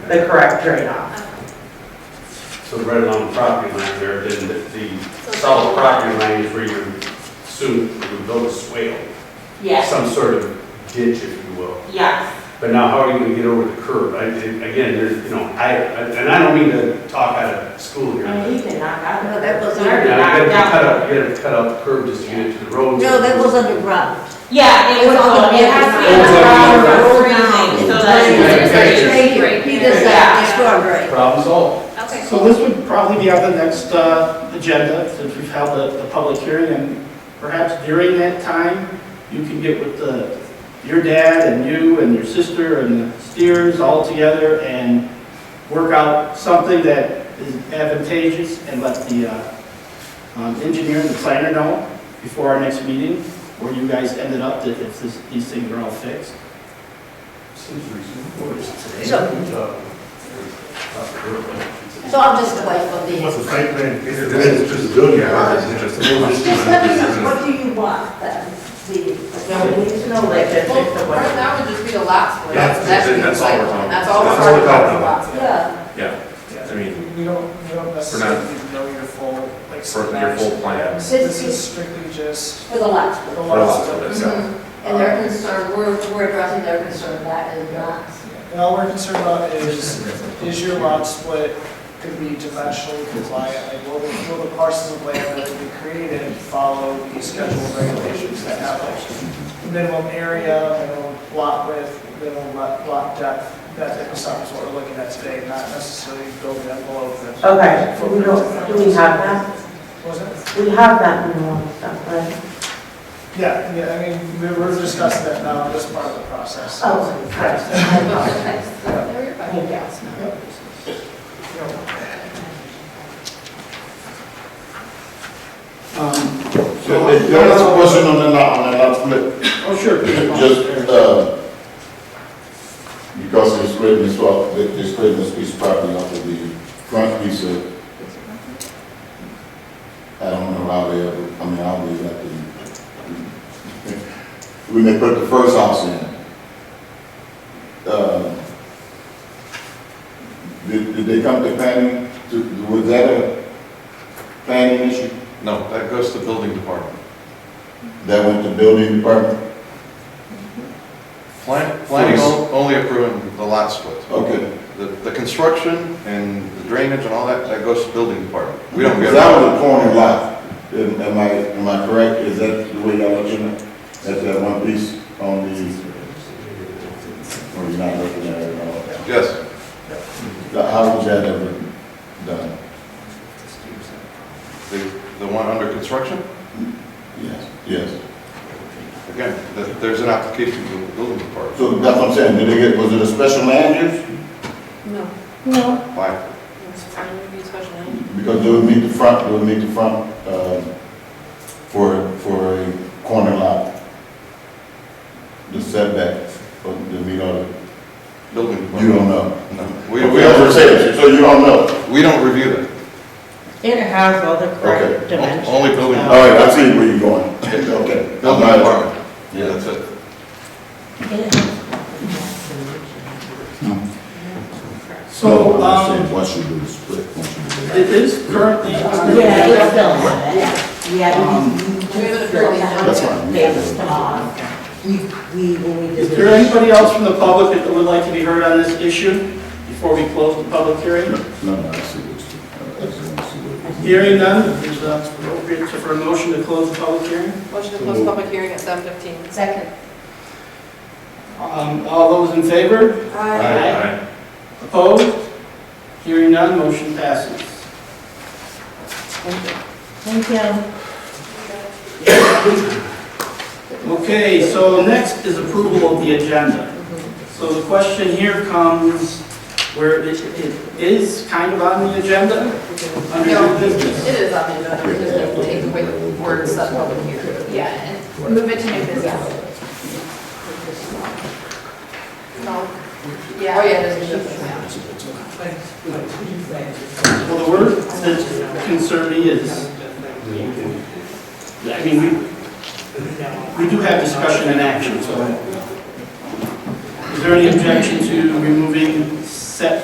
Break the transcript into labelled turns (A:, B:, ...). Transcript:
A: the correct drain off.
B: So right along the property line there, then the, the solid property line is where you soon, you build a swale.
A: Yes,
B: Some sort of ditch, if you will.
A: yes.
B: But now how are you gonna get over the curb? I, I- again, there's, you know, I, I- and I don't mean to talk out of school here.
A: And he's been knocked out.
C: No, that was-
A: It's already
B: Yeah, you
A: knocked
B: gotta cut
A: down.
B: up, you gotta cut up the curb just to get it to the road.
C: No, that was underground.
A: Yeah, it was all, it has to be
B: It was all-
A: underground for
C: Road
A: everything,
C: now.
A: so that's.
B: Yeah,
C: Right
B: yeah,
C: here. He does that, it's all right.
B: Problem solved.
D: Okay.
E: So this would probably be on the next uh, agenda, since we've held the, the public hearing, and perhaps during that time, you can get with the, your dad and you and your sister and the steers all together and work out something that is advantageous and let the uh, um, engineer and the planner know before our next meeting, where you guys ended up, that if this- these things are all fixed.
B: Seems
E: What is it today?
C: So, so I'm just the wife of
F: What's
C: the.
F: the site plan? It's just building hours, it's just.
C: Just let me know, what do you want then? The,
A: Yeah, we need to know like that, like the
D: Well, right
A: way.
D: now would just be the lot split.
F: That's- that's all we're talking about.
D: That's all we're
F: That's all
D: talking
F: we're
D: about, the
F: talking about.
D: lot split.
C: yeah,
F: Yeah, I mean,
G: We don't, we don't necessarily need to know your full, like.
F: For your
G: schematics.
F: full plan.
G: This is strictly just
C: for the lots.
G: the
F: for a
G: lots.
F: lot of it, so.
D: Mhm.
C: And their concern, we're, we're addressing their concern, that is not.
G: And all we're concerned about is, is your lot split going to be dimensionally compliant? Like, will, the- will the parcels of land that will be created follow the scheduled regulations that have like minimum area, minimum lot width, minimum lot, lot depth? That type of stuff is what we're looking at today, not necessarily building envelope that
A: Okay, so we don't, do we have that?
G: was it?
A: We have that minimal stuff, right?
G: Yeah, yeah, I mean, we we're discussing that now, this part of the process.
A: Oh, right.
D: There you're fine.
A: Thank you.
E: Um,
H: So, if there was a question on the lot, on the lot split,
E: Oh, sure.
H: just, uh, because they're spreading this off, they- they're spreading this piece of property off of the front piece of, I don't know how they ever, I mean, I'll leave that to you. When they put the first house in, uh, did, did they come to planning, to- was that a planning issue?
I: No, that goes to building department.
H: That went to building department?
I: Plan- Planning on- only approving the lot splits.
H: Okay.
I: The, the construction and the drainage and all that, that goes to building department. We don't get.
H: Because that was a corner lot, am am I, am I correct? Is that the way y'all looking at, at that one piece on the, or you're not looking at it at
I: Yes,
H: all? How was that ever done?
I: the, the one under construction,
H: Yes. Yes.
I: again, th- there's an application to the building department.
H: So that's what I'm saying, did they get, was it a special land use?
D: No,
I: Why?
D: it's fine, it'd be special land.
H: Because they would meet the front, they would meet the front, um, for, for a corner lot. The setbacks, or the meet all, the-
I: Building
H: you
I: department.
H: don't know.
I: No, we, we
H: We don't
I: don't,
H: say it, so you don't know.
I: we don't review that.
A: It has all the correct dimensions.
I: O- Only building.
H: All right, I see where you're going. Okay.
I: Building department. Yeah, that's it.
H: So,
E: So, um,
H: once you do the split, once you do
E: it is currently on the
A: Yeah,
E: agenda.
A: it's still, yeah,
E: Um,
D: We have it approved.
H: that. That's fine.
A: it's small. We, we, we need to.
E: Is there anybody else from the public that would like to be heard on this issue before we close the public hearing?
H: No, no, I see what you, I just want to see what. you-
E: Hearing none, is uh, appropriate for a motion to close the public hearing?
D: Motion to close public hearing at seven fifteen.
C: Second.
E: Um, All those in favor? Aye. Opposed? Hearing none, motion passes.
C: Thank you.
E: Okay, so next is approval of the agenda. So the question here comes where it it is kind of on the agenda, under
D: No,
E: new business.
D: It is on the agenda, we just don't take away the word set public hearing. Yeah, and move it to new business. No. Yeah. Oh, yeah, there's a new business.
E: Well, the word that concerned me is, I mean, we, we do have discussion and action, so. Is there any objection to